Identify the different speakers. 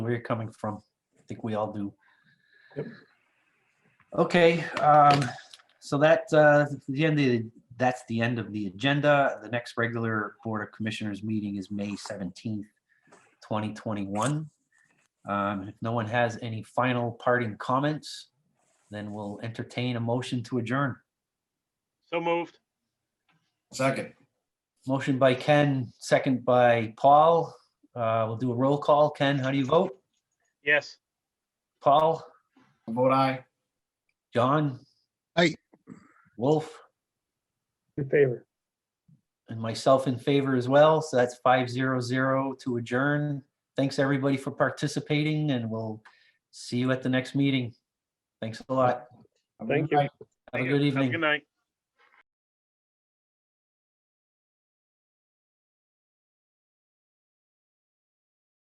Speaker 1: where you're coming from. I think we all do.
Speaker 2: Yep.
Speaker 1: Okay, um, so that, uh, the end of, the- that's the end of the agenda. The next regular Board of Commissioners meeting is May seventeenth, twenty twenty-one. Um, if no one has any final parting comments, then we'll entertain a motion to adjourn.
Speaker 3: So moved.
Speaker 2: Second,
Speaker 1: Motion by Ken, second by Paul. Uh, we'll do a roll call. Ken, how do you vote?
Speaker 3: Yes.
Speaker 1: Paul?
Speaker 2: vote aye.
Speaker 1: John?
Speaker 4: Aye.
Speaker 1: Wolf?
Speaker 5: In favor.
Speaker 1: And myself in favor as well, so that's five zero zero to adjourn. Thanks, everybody, for participating, and we'll see you at the next meeting. Thanks a lot.
Speaker 2: Have a
Speaker 5: Thank
Speaker 2: good
Speaker 5: you.
Speaker 2: night.
Speaker 1: Have a good
Speaker 3: Have a
Speaker 1: evening.
Speaker 3: Good night.